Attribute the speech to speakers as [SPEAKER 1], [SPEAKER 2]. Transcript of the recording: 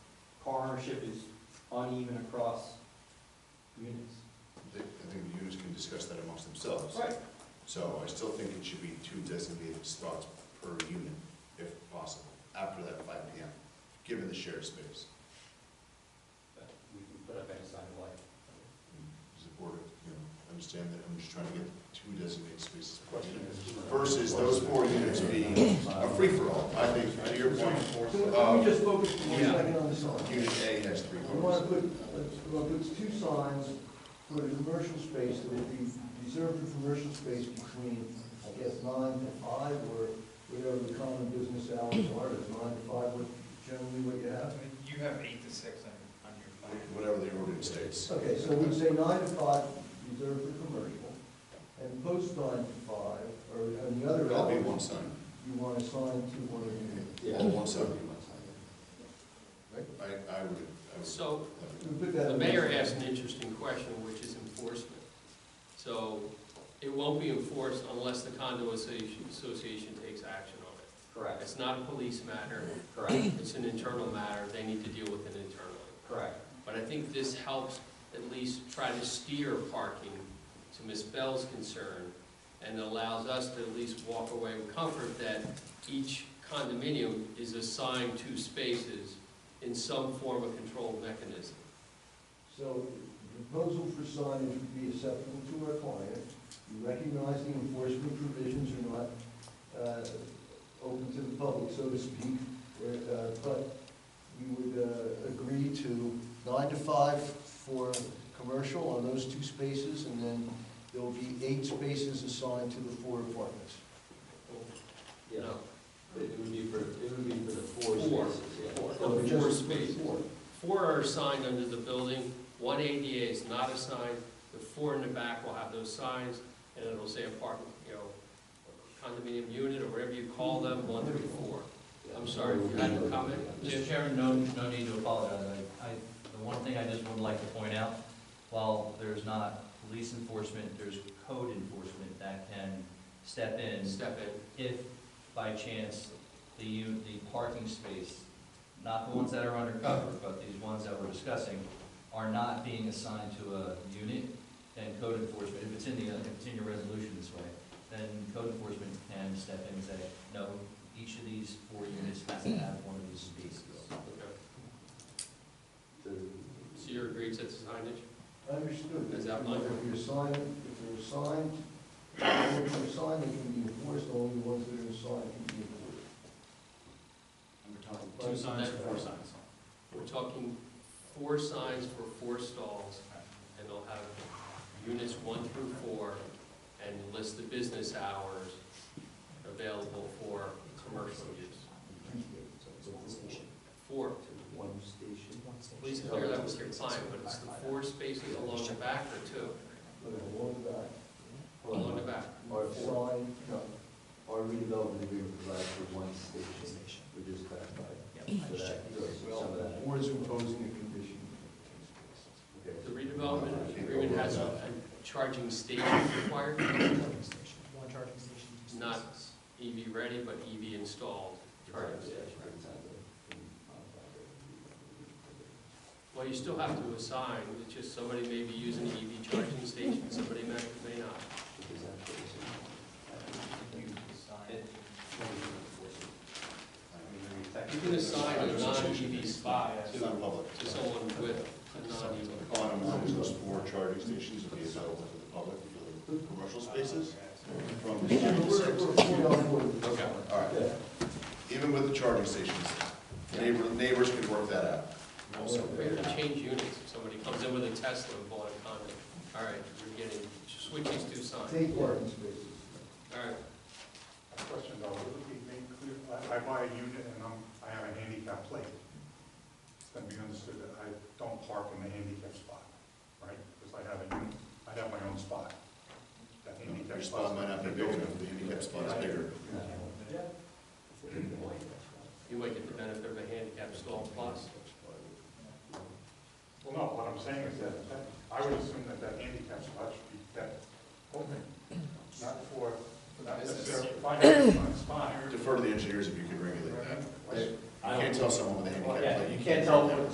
[SPEAKER 1] ownership is uneven across units.
[SPEAKER 2] I think the units can discuss that amongst themselves.
[SPEAKER 1] Right.
[SPEAKER 2] So I still think it should be two designated slots per unit, if possible, after that five P M, given the shared space.
[SPEAKER 1] But we can put up any sign of life.
[SPEAKER 2] Does the board, you know, understand that, I'm just trying to get two designated spaces per
[SPEAKER 1] Question
[SPEAKER 2] unit.
[SPEAKER 1] is.
[SPEAKER 2] Versus those four units being a free-for-all, I think, to your point,
[SPEAKER 3] Can we just focus for one
[SPEAKER 2] Um, Yeah.
[SPEAKER 3] second on the sign?
[SPEAKER 2] unit A has three
[SPEAKER 3] We want to
[SPEAKER 2] rooms.
[SPEAKER 3] put, let's, well, it's two signs for the commercial space, that would be reserved for commercial space between, I guess, nine to five, or whatever the common business hours are, is nine to five, what generally what you have?
[SPEAKER 4] You have eight to six on, on your plan.
[SPEAKER 2] Whatever the ordinance states.
[SPEAKER 3] Okay, so we'd say nine to five reserved for commercial, and post nine to five, or on the other
[SPEAKER 2] That'll be
[SPEAKER 3] hours,
[SPEAKER 2] one sign,
[SPEAKER 3] you want to sign to one of you.
[SPEAKER 1] Yeah.
[SPEAKER 2] or one sign. I, I would, I would.
[SPEAKER 5] So
[SPEAKER 3] We put that
[SPEAKER 5] the
[SPEAKER 3] in
[SPEAKER 5] mayor asked an interesting question, which is enforcement. So it won't be enforced unless the condo associ- association takes action on it.
[SPEAKER 1] Correct,
[SPEAKER 5] It's not a police matter,
[SPEAKER 1] correct,
[SPEAKER 5] it's an internal matter, they need to deal with it internally.
[SPEAKER 1] correct.
[SPEAKER 5] But I think this helps at least try to steer parking to Ms. Bell's concern and allows us to at least walk away with comfort that each condominium is assigned two spaces in some form of controlled mechanism.
[SPEAKER 3] So the proposal for signage would be acceptable to our client. You recognize the enforcement provisions are not uh, open to the public, so to speak, or, uh, but you would uh, agree to nine to five for commercial on those two spaces, and then there will be eight spaces assigned to the four apartments.
[SPEAKER 1] Yeah,
[SPEAKER 5] No.
[SPEAKER 1] but it would be for, it would be for the four
[SPEAKER 5] Four.
[SPEAKER 1] spaces, yeah.
[SPEAKER 5] Four.
[SPEAKER 1] So
[SPEAKER 5] Four
[SPEAKER 1] just-
[SPEAKER 5] spaces.
[SPEAKER 1] four.
[SPEAKER 5] Four are assigned under the building, one ADA is not assigned, the four in the back will have those signs, and it'll say apartment, you know, condominium unit, or whatever you call them, one through four. I'm sorry, you had a comment? Jim?
[SPEAKER 6] Mr. Chairman, no, no need to apologize. I, I- the one thing I just would like to point out, while there's not police enforcement, there's code enforcement that can step in
[SPEAKER 5] Step in.
[SPEAKER 6] if by chance the, u- the parking space, not the ones that are undercover, but these ones that we're discussing, are not being assigned to a unit, then code enforcement, if it's in the, if it's in your resolution this way, then code enforcement can step in and say, no, each of these four units has to have one of these spaces.
[SPEAKER 5] So you're agreed to the signage?
[SPEAKER 3] Understood.
[SPEAKER 5] Is that
[SPEAKER 3] If
[SPEAKER 5] like-
[SPEAKER 3] you're assigned, if you're assigned, if you're assigned, they can be enforced, only the ones that are assigned can be enforced.
[SPEAKER 5] Two signs or four signs? We're talking four signs for four stalls, and they'll have units one through four, and list the business hours available for commercial use. Four,
[SPEAKER 1] One station.
[SPEAKER 5] please clear that with your client, but it's the four spaces along the back or two,
[SPEAKER 3] But I want that.
[SPEAKER 5] along the back?
[SPEAKER 1] Or four.
[SPEAKER 3] sign, no.
[SPEAKER 1] Our redevelopment agreement provides for one station, we just clarified. So that goes with some of
[SPEAKER 3] Well,
[SPEAKER 1] that.
[SPEAKER 3] or is imposing a condition.
[SPEAKER 1] Okay.
[SPEAKER 5] The redevelopment agreement has a a charging station required,
[SPEAKER 4] One charging station. two
[SPEAKER 5] Not-
[SPEAKER 4] stations.
[SPEAKER 5] EV ready, but EV installed charging station. Well, you still have to assign, it's just somebody may be using the EV charging station, somebody may, may not. You can assign a non-EV spot
[SPEAKER 2] It's
[SPEAKER 5] to,
[SPEAKER 2] not public.
[SPEAKER 5] to someone with a non-EV car.
[SPEAKER 2] Bottom line is those four charging stations will be available to the public for the commercial spaces from
[SPEAKER 3] Yeah,
[SPEAKER 2] zero
[SPEAKER 3] but
[SPEAKER 2] to
[SPEAKER 3] we're-
[SPEAKER 2] six.
[SPEAKER 3] we're fully on board with this.
[SPEAKER 5] Okay.
[SPEAKER 2] All right,
[SPEAKER 3] Yeah.
[SPEAKER 2] even with the charging stations, neighbor, neighbors can work that out. Also,
[SPEAKER 5] We have to change units, if somebody comes in with a Tesla and bought a condo, all right, you're getting, switch these two signs,
[SPEAKER 3] Take parking spaces.
[SPEAKER 5] all right.
[SPEAKER 7] A Question though, would it be made clear, I I buy a unit and I'm, I have a handicap plate. It's gonna be understood that I don't park in the handicap spot, right? Because I have a unit, I have my own spot. That
[SPEAKER 2] Your
[SPEAKER 7] handicap
[SPEAKER 2] spot
[SPEAKER 7] spot.
[SPEAKER 2] might not be big enough, the handicap spot is bigger.
[SPEAKER 5] You might get the benefit of a handicap stall plus.
[SPEAKER 7] Well, no, what I'm saying is that, that- I would assume that that handicap spot should be that open, not for, not necessarily finding my spot.
[SPEAKER 2] Defer to the engineers if you can regulate that. You can't tell someone with a handicap plate.
[SPEAKER 1] You can't tell
[SPEAKER 2] them.
[SPEAKER 1] them.